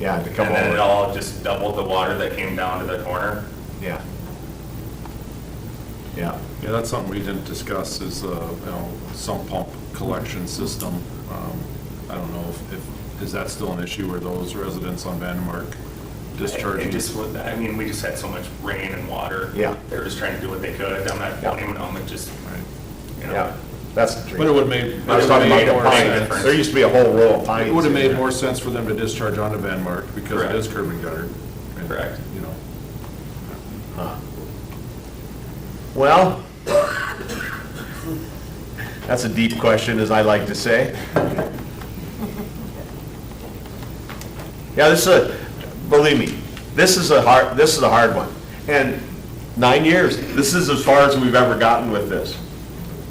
Yeah, to And come then it over. all just doubled the water that came down to the corner. Yeah. Yeah, Yeah, that's something we didn't discuss is, uh, you know, sump pump collection system. Um, I don't know if, if, is that still an issue where those residents on Vandermark It discharging? just, was- I mean, we just had so much rain and water. Yeah. They were just trying to do what they could. I'm not blaming them, it just, you know. yeah, that's the dream. But it would make. I was talking about it the would make more pines, sense. there used to be a whole row of pines. It would have in made there. more sense for them to discharge onto Vanmark because it Correct. is curb and gutter. and, Correct. You know, Well, that's a deep question, as I like to say. Yeah, this is a, believe me, this is a hard, this is a hard one. And nine years, this is as far as we've ever gotten with this.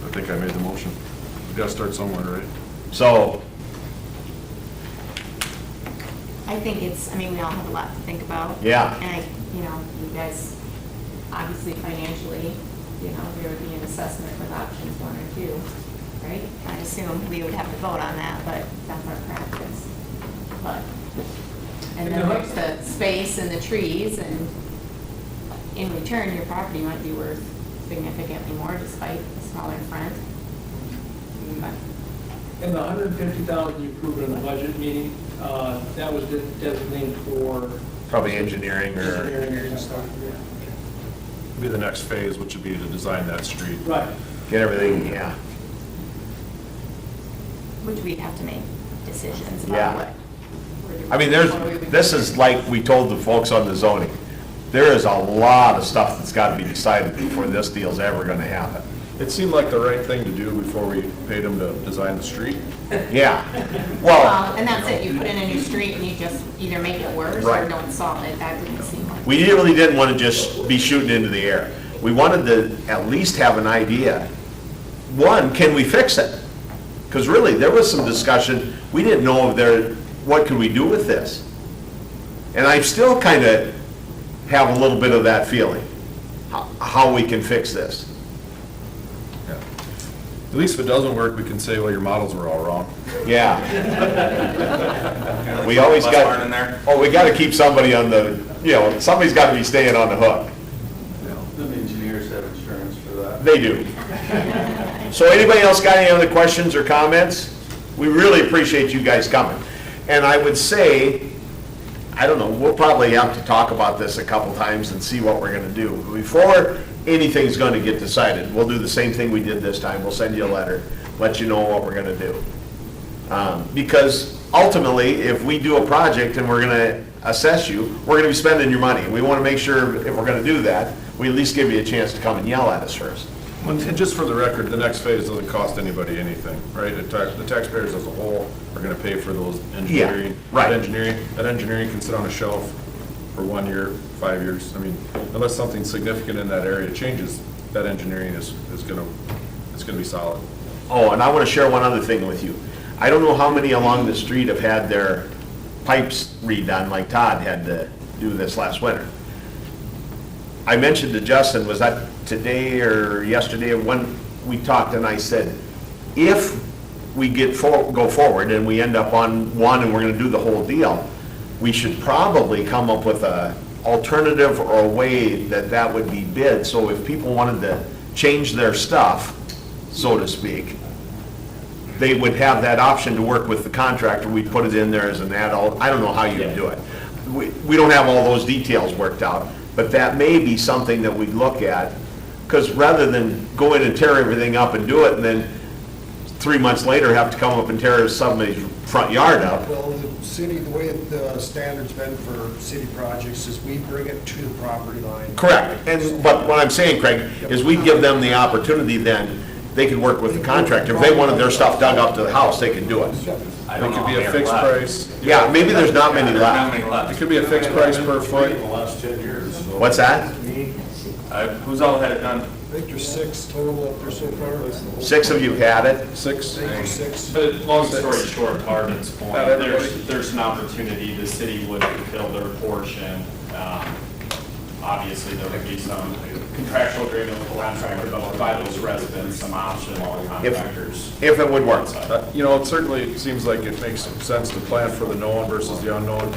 I think I made the motion. You gotta start somewhere, right? So, I think it's, I mean, we all have a lot to think about. Yeah. And I, you know, you guys, obviously financially, you know, there would be an assessment with options one or two, right? I assume we would have to vote on that, but that's our practice. But, and then there's the space and the trees and in return, your property might be worth significantly more despite the smaller front. But And the hundred and fifty thousand you approved in the budget meeting, uh, that was de- designated for probably engineering or, engineering and stuff, yeah. Be the next phase, which would be to design that street. Right, get everything, yeah. Which we'd have to make decisions Yeah. about what. we're doing. I mean, there's, What we would this do. is like we told the folks on the zoning. There is a lot of stuff that's got to be decided before this deal's ever going to happen. It seemed like the right thing to do before we paid them to design the street. Yeah. Well, Well, and that's it, you put in a new street and you just either make it worse Right. or don't solve it, that didn't seem like. we really didn't want to just be shooting into the air. We wanted to at least have an idea. One, can we fix it? Because really, there was some discussion, we didn't know if there, what could we do with this? And I still kind of have a little bit of that feeling, how- how we can fix this. Yeah. At least if it doesn't work, we can say, well, your models were all wrong. Yeah. Kinda like We the always bus got- barn in there. Oh, we got to keep somebody on the, you know, somebody's got to be staying on the hook. The engineers have insurance for that. They do. So anybody else got any other questions or comments? We really appreciate you guys coming. And I would say, I don't know, we'll probably have to talk about this a couple times and see what we're gonna do. Before anything's gonna get decided, we'll do the same thing we did this time. We'll send you a letter, let you know what we're gonna do. Um, Because ultimately, if we do a project and we're gonna assess you, we're gonna be spending your money. We wanna make sure if we're gonna do that, we at least give you a chance to come and yell at us first. And just for the record, the next phase doesn't cost anybody anything, right? The tax- the taxpayers as a whole are gonna pay for those engineering. right. that Engineering, that engineering can sit on a shelf for one year, five years. I mean, unless something significant in that area changes, that engineering is, is gonna, it's gonna be solid. Oh, and I want to share one other thing with you. I don't know how many along the street have had their pipes redone, like Todd had to do this last winter. I mentioned to Justin, was that today or yesterday, when we talked, and I said, if we get, for- go forward and we end up on one and we're gonna do the whole deal, we should probably come up with a alternative or a way that that would be bid, so if people wanted to change their stuff, so to speak, they would have that option to work with the contractor, we put it in there as an add-on, I don't know how you would do it. We, we don't have all those details worked out, but that may be something that we'd look at, because rather than go in and tear everything up and do it, and then three months later have to come up and tear somebody's front yard up, Well, the city, the way the standard's been for city projects is we bring it to the property line. Correct, and, but what I'm saying, Craig, is we give them the opportunity then, they could work with the contractor. If they wanted their stuff dug up to the house, they could do it. I It don't know could how be many a are fixed left. price. Yeah, maybe there's not many There's Not left. many It left. could be a fixed price per foot. In the last 10 years, so. What's that? Uh, Who's all had it done? I think there's six total up there so far. Six of you had it? Six, I think there's six. But long story short, Harbin's point, Not everybody. there's, there's an opportunity, the city would fulfill their portion. Um, Obviously, there would be some contractual agreement with the contractor, but provide those residents some option on contractors. If it would work. Uh, you know, it certainly seems like it makes sense to plan for the known versus the unknown.